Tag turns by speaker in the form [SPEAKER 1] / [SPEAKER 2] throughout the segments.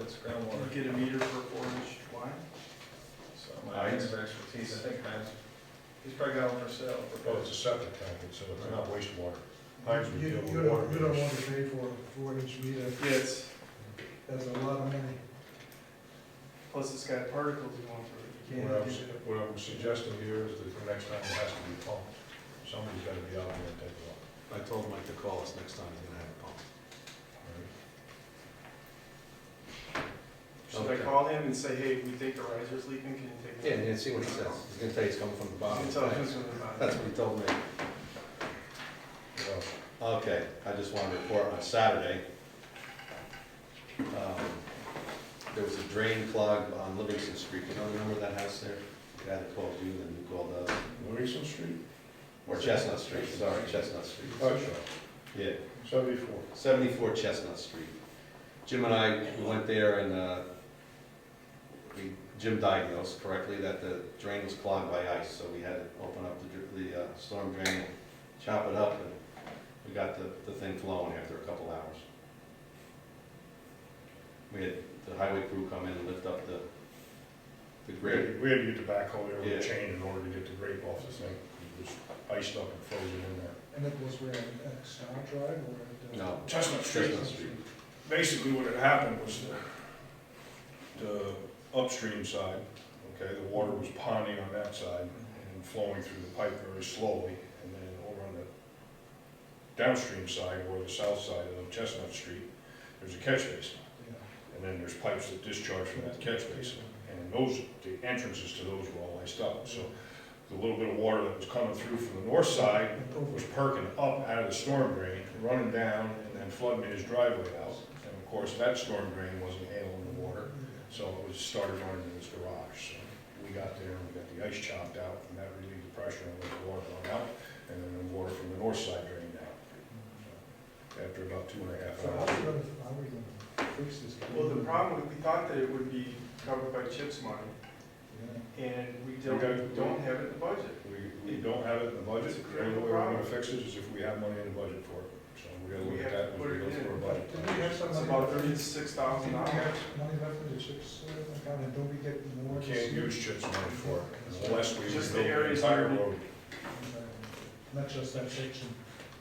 [SPEAKER 1] it's groundwater.
[SPEAKER 2] Get a meter for four inch wide?
[SPEAKER 1] So my areas of expertise, I think Heinz, he's probably got one for sale,
[SPEAKER 3] Well, it's
[SPEAKER 1] proposed.
[SPEAKER 3] a septic tank, it's, it's not wastewater. Heinz would
[SPEAKER 4] You,
[SPEAKER 3] deal
[SPEAKER 4] you
[SPEAKER 3] with water
[SPEAKER 4] don't, you don't
[SPEAKER 3] meters.
[SPEAKER 4] want to pay for a four-inch meter,
[SPEAKER 2] Yes,
[SPEAKER 4] that's a lot of money.
[SPEAKER 2] plus it's got particles going through it, you
[SPEAKER 3] What
[SPEAKER 2] can't
[SPEAKER 3] I'm,
[SPEAKER 2] get it.
[SPEAKER 3] what I'm suggesting here is that the next time it has to be pumped, somebody's gotta be out there and take it off.
[SPEAKER 5] I told Mike to call us next time he's gonna have a pump.
[SPEAKER 2] Should I call him and say, hey, we think the riser's leaking, can you take
[SPEAKER 5] Yeah,
[SPEAKER 2] it?
[SPEAKER 5] and then see what he says. He's gonna tell you it's coming from the
[SPEAKER 2] You
[SPEAKER 5] bottom.
[SPEAKER 2] can tell who's gonna buy it.
[SPEAKER 5] That's what he told me.
[SPEAKER 3] Well,
[SPEAKER 5] Okay, I just wanted to report on Saturday. um, There was a drain clog on Livingston Street. You know, remember that house there? The guy that called you and then you called us.
[SPEAKER 3] Louison Street?
[SPEAKER 5] Or Chestnut Street, sorry, Chestnut Street.
[SPEAKER 3] Oh,
[SPEAKER 5] Yeah,
[SPEAKER 3] Seventy-four.
[SPEAKER 5] 74 Chestnut Street. Jim and I went there and uh, we, Jim diagnosed correctly that the drain was clogged by ice, so we had to open up the dr- the uh, storm drain, and chop it up, and we got the, the thing flowing after a couple hours. We had the highway crew come in and lift up the, the
[SPEAKER 3] We
[SPEAKER 5] grate.
[SPEAKER 3] had, we had to get the backhoe there
[SPEAKER 5] Yeah.
[SPEAKER 3] with a chain in order to get the grape off the thing. It was iced up and frozen in there.
[SPEAKER 4] And it was where, at Sound Drive or at? uh,
[SPEAKER 5] No,
[SPEAKER 3] Chestnut Street,
[SPEAKER 5] Chestnut Street.
[SPEAKER 3] basically what had happened was the, the upstream side, okay, the water was ponding on that side and flowing through the pipe very slowly, and then over on the downstream side, or the south side of Chestnut Street, there's a catch basin,
[SPEAKER 4] yeah.
[SPEAKER 3] and then there's pipes that discharge from that catch basin, and those, the entrances to those were all iced up, so the little bit of water that was coming through from the north side was perking up out of the storm drain, running down, and then flooding his driveway out. And of course, that storm drain wasn't handling the water, so it was started running in his garage. So We got there, and we got the ice chopped out, and that relieved the pressure and let the water run out, and then the water from the north side drained out. After about two and a half
[SPEAKER 4] So how are we
[SPEAKER 3] hours.
[SPEAKER 4] gonna, how are we gonna fix this?
[SPEAKER 2] Well, the problem, was we thought that it would be covered by CHIPS money,
[SPEAKER 4] Yeah.
[SPEAKER 2] and we don't,
[SPEAKER 3] Okay.
[SPEAKER 2] don't have it in the budget.
[SPEAKER 3] We, we don't have it in the budget,
[SPEAKER 2] It's a
[SPEAKER 3] the only way
[SPEAKER 2] critical
[SPEAKER 3] we're gonna
[SPEAKER 2] problem.
[SPEAKER 3] fix it is if we have money in the budget for it. So we gotta look
[SPEAKER 2] We
[SPEAKER 3] at
[SPEAKER 2] have
[SPEAKER 3] that
[SPEAKER 2] to
[SPEAKER 3] when we go
[SPEAKER 2] put it in.
[SPEAKER 3] through our budget.
[SPEAKER 4] Did we have some
[SPEAKER 2] It's about thirty-six thousand
[SPEAKER 4] Did we
[SPEAKER 2] dollars.
[SPEAKER 4] have money left in the CHIPS uh, account, and don't we get more?
[SPEAKER 3] We can't use CHIPS money for it unless we
[SPEAKER 2] Just the
[SPEAKER 3] rebuild the
[SPEAKER 2] areas
[SPEAKER 3] entire
[SPEAKER 2] where we-
[SPEAKER 3] road.
[SPEAKER 4] Uh, Not just that section,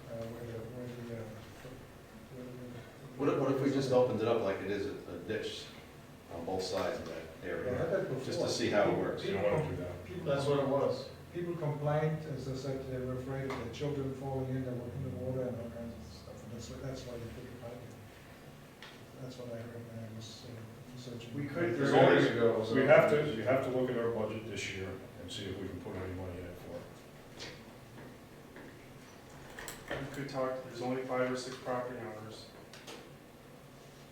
[SPEAKER 4] uh, where the, where the, uh. where the-
[SPEAKER 5] What if, what if we just opened it up like it is a- a ditch on both sides of that
[SPEAKER 4] Yeah, I
[SPEAKER 5] area?
[SPEAKER 4] had that before.
[SPEAKER 5] Just to see how it works.
[SPEAKER 3] You don't wanna do that.
[SPEAKER 4] People-
[SPEAKER 1] That's what it was.
[SPEAKER 4] People complained, as I said, they were afraid of their children falling in, they were in the water and all kinds of stuff, and that's, why- that's why they put it back in. That's what I heard when I was uh, researching.
[SPEAKER 2] We could-
[SPEAKER 3] There's always- We have to, we have to look at our budget this year and see if we can put any money in it for it.
[SPEAKER 2] We could talk, there's only five or six property owners.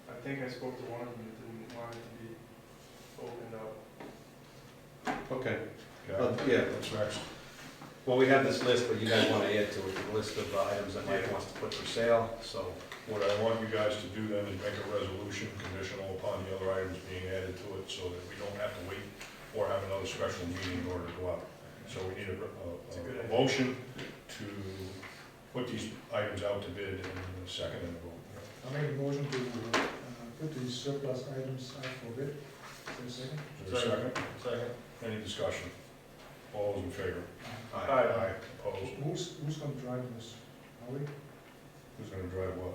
[SPEAKER 2] I think I spoke to one of them that didn't want it to be opened up.
[SPEAKER 5] Okay,
[SPEAKER 3] Okay?
[SPEAKER 5] well, Uh, yeah,
[SPEAKER 3] That's next.
[SPEAKER 5] Well, we have this list, but you guys want to add to it the list of items that Mike wants to put for sale, so.
[SPEAKER 3] What I want you guys to do then is make a resolution conditional upon the other items being added to it so that we don't have to wait or have another special meeting in order to go out. So we need a,
[SPEAKER 2] It's a
[SPEAKER 3] a-
[SPEAKER 2] good
[SPEAKER 3] a,
[SPEAKER 2] idea.
[SPEAKER 3] motion to put these items out to bid and a second and a vote.
[SPEAKER 4] I made a motion to, uh, put these surplus items out for bid, is there a second?
[SPEAKER 3] Is there a second?
[SPEAKER 1] Second.
[SPEAKER 3] Any discussion? All those in favor?
[SPEAKER 2] Aye.
[SPEAKER 3] Opposed?
[SPEAKER 4] uh, Who's, who's gonna drive this, are we,
[SPEAKER 3] Who's gonna drive what?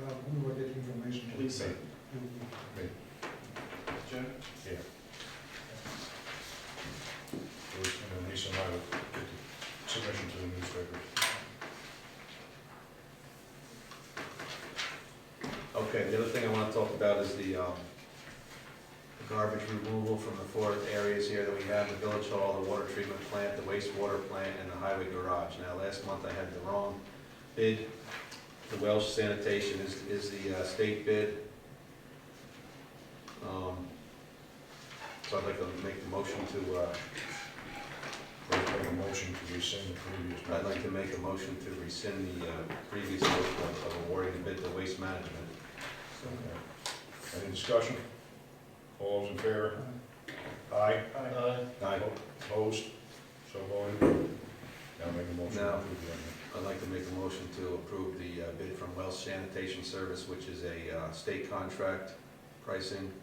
[SPEAKER 4] well, who do I get information? to?
[SPEAKER 2] Lisa,
[SPEAKER 4] You-
[SPEAKER 2] Jim,
[SPEAKER 3] And then Lisa and I will get the submission to the newspaper.
[SPEAKER 5] Okay, the other thing I want to talk about is the, um, the garbage removal from the four areas here that we have, the village hall, the water treatment plant, the wastewater plant, and the highway garage. Now, last month I had the wrong bid. The Welsh sanitation is, is the uh, state bid. Um, So I'd like to make the motion to, uh,
[SPEAKER 3] We'll make a motion to rescind the previous.
[SPEAKER 5] I'd
[SPEAKER 3] motion.
[SPEAKER 5] like to make a motion to rescind the uh, previous motion of awarding the bid to waste management.
[SPEAKER 4] so-
[SPEAKER 3] Okay. Any discussion? All those in favor?
[SPEAKER 4] uh,
[SPEAKER 3] Aye.
[SPEAKER 1] Aye.
[SPEAKER 5] I,
[SPEAKER 3] Opposed? So voted. Now make a motion to
[SPEAKER 5] Now.
[SPEAKER 3] approve the amendment.
[SPEAKER 5] I'd like to make a motion to approve the uh, bid from Wells Sanitation Service, which is a uh, state contract pricing